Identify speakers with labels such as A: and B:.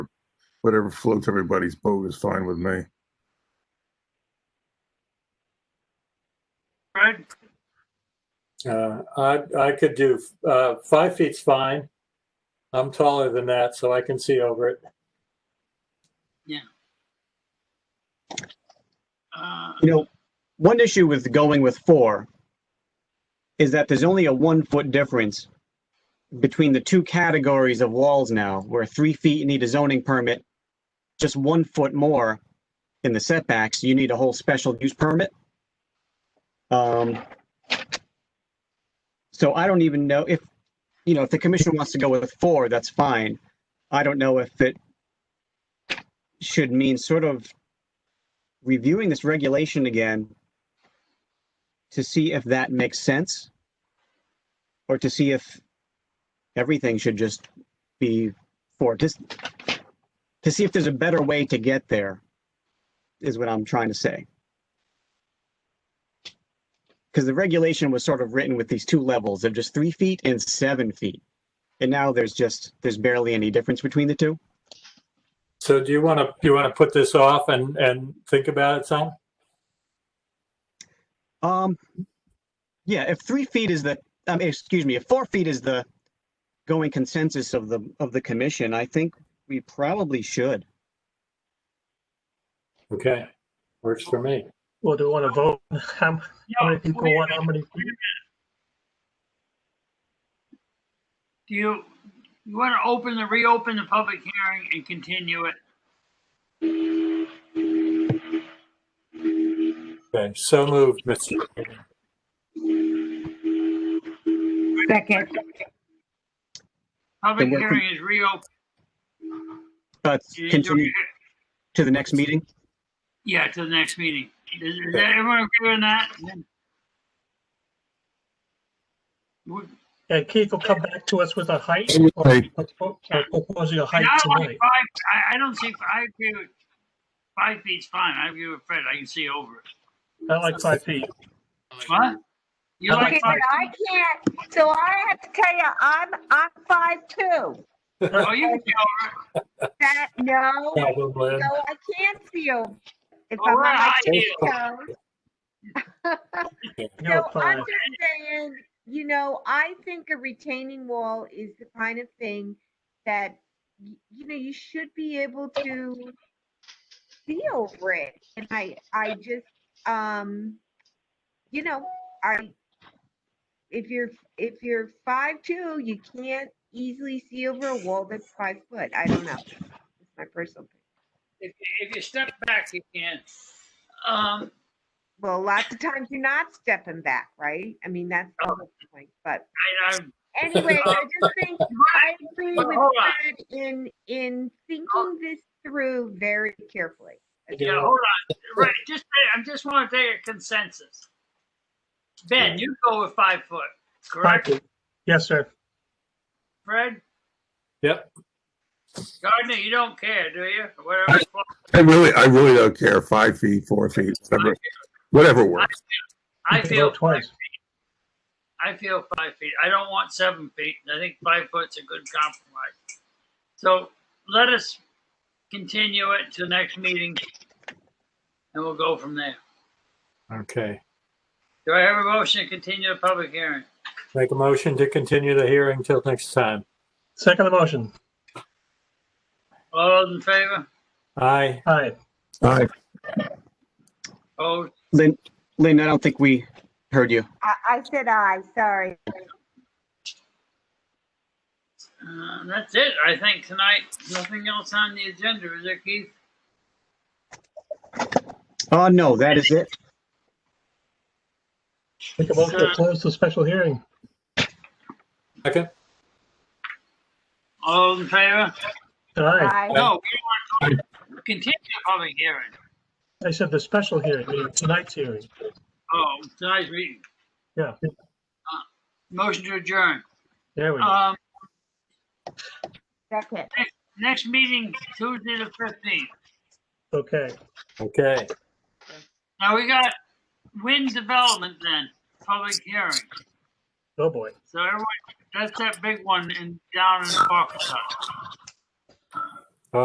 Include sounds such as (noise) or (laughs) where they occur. A: Whatever floats everybody's boat is fine with me.
B: Fred,
C: Uh, I, I could do, uh, five feet's fine. I'm taller than that, so I can see over it.
B: uh,
D: You know, one issue with going with four is that there's only a one foot difference between the two categories of walls now, where three feet you need a zoning permit, just one foot more in the setbacks, you need a whole special use permit. Um, so I don't even know if, you know, if the commission wants to go with four, that's fine. I don't know if it should mean sort of reviewing this regulation again to see if that makes sense or to see if everything should just be for just to see if there's a better way to get there is what I'm trying to say. Because the regulation was sort of written with these two levels of just three feet and seven feet. And now there's just, there's barely any difference between the two.
C: So do you want to, you want to put this off and, and think about it some?
D: Um, yeah, if three feet is the, um, excuse me, if four feet is the going consensus of the, of the commission, I think we probably should.
C: Okay, works for me.
E: Well, do we want to vote? How how
B: yeah,
E: many people
B: wait a
E: want, how
B: minute.
E: many?
B: Do you, you want to open the, reopen the public hearing and continue it?
C: Okay, so moved, Mr. Chairman.
F: Second,
B: Public
D: Then we're con-
B: hearing is reopened.
D: Uh,
B: You didn't do it
D: continue
B: yet.
D: to the next meeting.
B: Yeah, to the next meeting. Is, is that everyone agree on that? Would-
E: And Keith will come back to us with a height or
A: Anyway,
E: propo- or proposing a
B: And
E: height
B: I like
E: tonight.
B: five, I, I don't see, I agree with, five feet's fine. I agree with Fred. I can see over it.
E: I like five feet.
B: What? You
E: I
B: like
F: okay, but
B: five?
F: I can't, so I have to tell you, I'm, I'm five two.
B: Oh, you can see over it.
F: That, no, so
C: Probably.
F: I can't see you. If
B: Oh,
F: I'm on
B: we're
F: my
B: high
F: tiptoes.
E: You
F: So
E: know,
F: I'm
E: five.
F: just saying, you know, I think a retaining wall is the kind of thing that, y- you know, you should be able to see over it. And I, I just, um, you know, I, if you're, if you're five two, you can't easily see over a wall that's five foot. I don't know. It's my personal. opinion.
B: If, if you step back, you can. Um,
F: Well, lots of times you're not stepping back, right? I mean, that's the whole point, but.
B: I, I,
F: Anyway, I just think
B: (laughs)
F: I agree with
B: Hold on. Oh.
F: Brad in in thinking this through very carefully.
B: yeah, hold on. Right, just, I just want to take a consensus. Ben, you go with five foot,
E: Five
B: correct?
E: feet. Yes, sir.
B: Fred?
C: Yep.
B: Gardner, you don't care, do you? Whatever. it's called.
A: I really, I really don't care. Five feet, four feet, whatever, whatever works.
B: I
E: You can
B: feel
E: vote Twice.
B: I feel five feet. I don't want seven feet. and I think five foot's a good compromise. So let us continue it to next meeting, and we'll go from there.
C: Okay,
B: Do I have a motion to continue the public hearing?
C: make a motion to continue the hearing till next time.
E: Second motion.
B: All those in favor?
C: Aye,
E: Aye.
A: I,
B: Oh,
D: Lynn, Lynn, I don't think we heard you.
F: I, I said I, sorry.
B: uh, that's it. I think tonight, nothing else on the agenda, is there, Keith?
D: Oh, no, that is it.
E: Make a motion to close the special hearing.
C: second?
B: All those in favor?
E: Aye.
F: I,
B: No, we don't want to continue the public hearing.
E: I said the special hearing, you know, tonight's hearing.
B: Oh, tonight's meeting.
E: Yeah.
B: Uh, Motion to adjourn.
E: There we go.
B: Um,
F: second.
B: next meeting Tuesday the fifteenth.
E: Okay.
C: Okay,
B: Now we got wind development then, public hearing.
E: Oh, boy.
B: So everyone, that's that big one in, down in Arkansas.